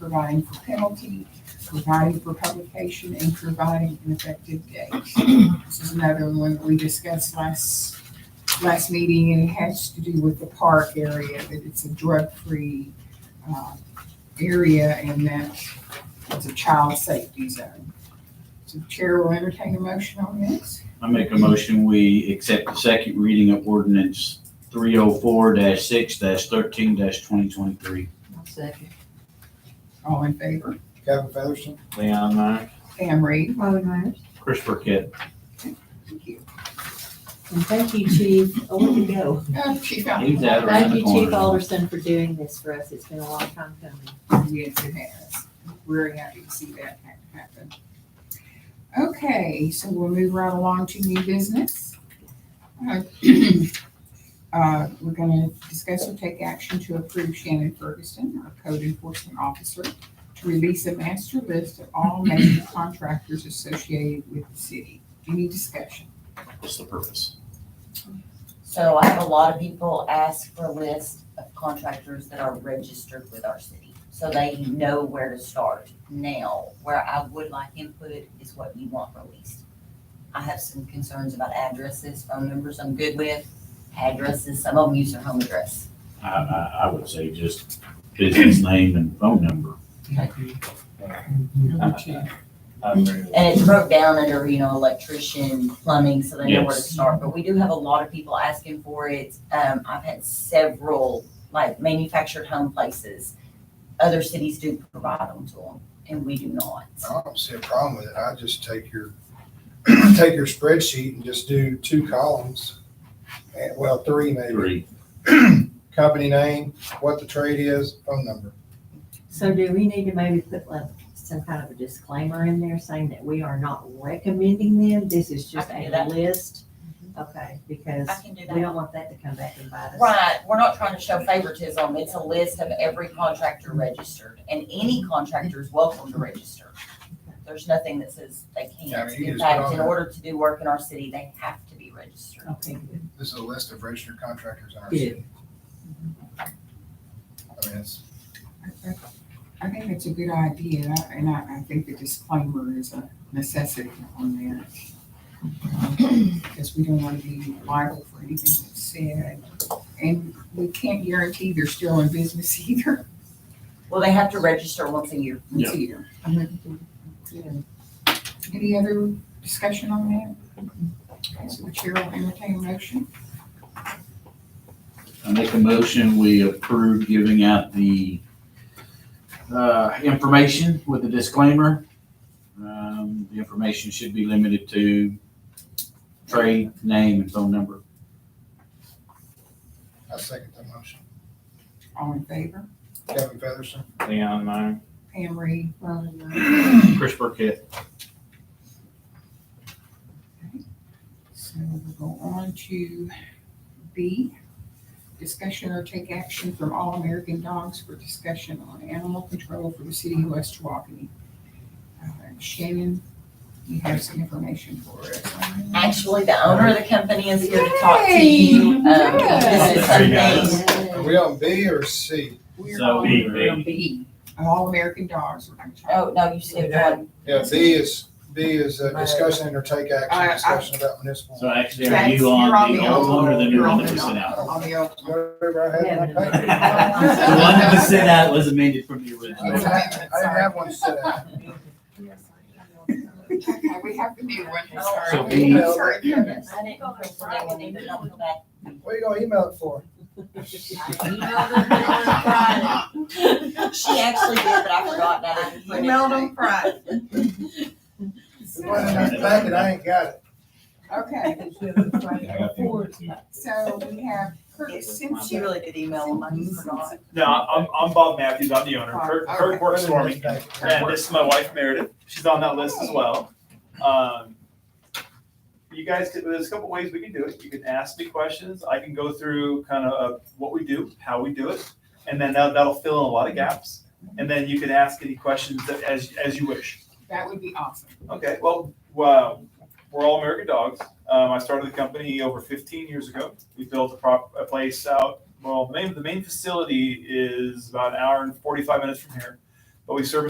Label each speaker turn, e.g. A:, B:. A: providing for penalty, providing for publication, and providing an effective date. This is another one that we discussed last, last meeting, and it has to do with the park area, that it's a drug-free, uh, area, and that it's a child safety zone. So Chair will entertain a motion on this.
B: I make a motion, we accept the second reading of ordinance three oh four six thirteen twenty twenty-three.
C: Second.
A: All in favor?
D: Kevin Featherston,
B: Leon, aye.
A: Pam Reed?
C: Robin Myers.
B: Chris Burkett.
A: Thank you.
C: And thank you, Chief. Oh, where'd you go?
A: Uh, Chief Allen?
B: He's out around
C: Thank
B: the
C: you, Chief
B: corner.
C: Alderson, for doing this for us. It's been a long time coming.
A: Yes, it has. Very happy to see that ha- happen. Okay, so we'll move right along to new business. Uh, uh, We're gonna discuss or take action to approve Shannon Ferguson, our code enforcement officer, to release a master list of all major contractors associated with the city. Any discussion?
B: What's the purpose?
E: So I have a lot of people ask for a list of contractors that are registered with our city, so they know where to start. Now, where I would like input is what you want released. I have some concerns about addresses, phone numbers I'm good with, addresses, some of them use their home address.
B: I, I, I would say just business name and phone number.
E: And it's broke down under, you know, electrician, plumbing, so they know where to
B: Yes.
E: start, but we do have a lot of people asking for it. Um, I've had several, like manufactured home places. Other cities do provide them to them, and we do not.
D: I don't see a problem with it, I just take your, take your spreadsheet and just do two columns. And, well, three maybe,
B: Three.
D: company name, what the trade is, phone number.
C: So do we need to maybe put like some kind of a disclaimer in there saying that we are not recommending them? This is just
E: can do
C: a
E: that. Mm-hmm.
C: list? Okay, because
E: I can do
C: we
E: that.
C: don't want that to come back and bite us.
E: Right, we're not trying to show favoritism, it's a list of every contractor registered, and any contractor is welcome to register. There's nothing that says they
D: Yeah, I
E: can't.
D: mean, you
E: In
D: just put
E: fact,
D: on
E: in
D: there.
E: order to do work in our city, they have to be registered.
C: Okay, good.
D: This is a list of registered contractors in our
C: Yeah.
D: city. I mean, it's,
A: I- I- I think it's a good idea, and I- and I, I think the disclaimer is a necessity on there. Because we don't want to be liable for anything that's said, and we can't guarantee they're still in business either.
E: Well, they have to register once a year.
B: Yeah.
A: Either. Any other discussion on that? Okay, So the chair will entertain a motion.
B: I make a motion, we approve giving out the, uh, information with a disclaimer. Um, the information should be limited to trade, name, and phone number.
D: I second the motion.
A: All in favor?
D: Kevin Featherston,
B: Leon, mine.
A: Pam Reed?
C: Well, then, uh,
B: Chris Burkett.
A: So we'll go on to B, discussion or take action from All American Dogs for discussion on animal control for the city of West Walkeny. Uh, Shannon, you have some information for us.
E: Actually, the owner of the company is here to talk to you.
A: Yay,
E: Um,
A: yes.
E: This is something,
D: are
C: yeah.
D: we on B or C?
A: We're
B: So
A: on
B: B,
A: we're on
B: B.
A: B, All American Dogs. we're gonna talk.
E: oh, no, you skipped one.
D: Yeah, B is, B is uh, discussion and or take
A: I- I-
D: action, discussion about municipal.
B: So actually, are
A: That's-
B: you
A: you're
B: on the
A: old
B: old one or the new
A: you're
B: one
A: on
B: that we
A: the
B: sent
A: old-
B: out?
A: On the old.
D: You remember I had in my paper?
B: The one that was sent out was amended from the
D: I didn't
B: original.
D: have- I didn't have one set out.
A: Okay, we have the new one. Sorry.
B: So B.
A: Sorry.
E: I didn't go for that one either, I'll go back.
D: What are you gonna email it for?
E: I emailed her on Friday. She actually did, but I forgot that. I didn't put it
A: Emailed
E: in.
D: It wasn't in the packet, I ain't got it.
A: Okay, so we have, Kurt, since
E: She
A: you
E: really did email them, I just forgot.
F: No, I'm, I'm Bob Matthews. I'm the owner. Kurt, Kurt works for me. And this is my wife Meredith. She's on that list as well. Um, you guys, could- there's a couple ways we can do it. You can ask me questions. I can go through kind of uh, what we do, how we do it. And then that, that'll fill in a lot of gaps. And then you can ask any questions that, as, as you wish.
A: That would be awesome.
F: Okay, well, wow, we're all American dogs. Um, I started the company over 15 years ago. We built a, prop, a place out. Well, the main, the main facility is about an hour and 45 minutes from here. but we service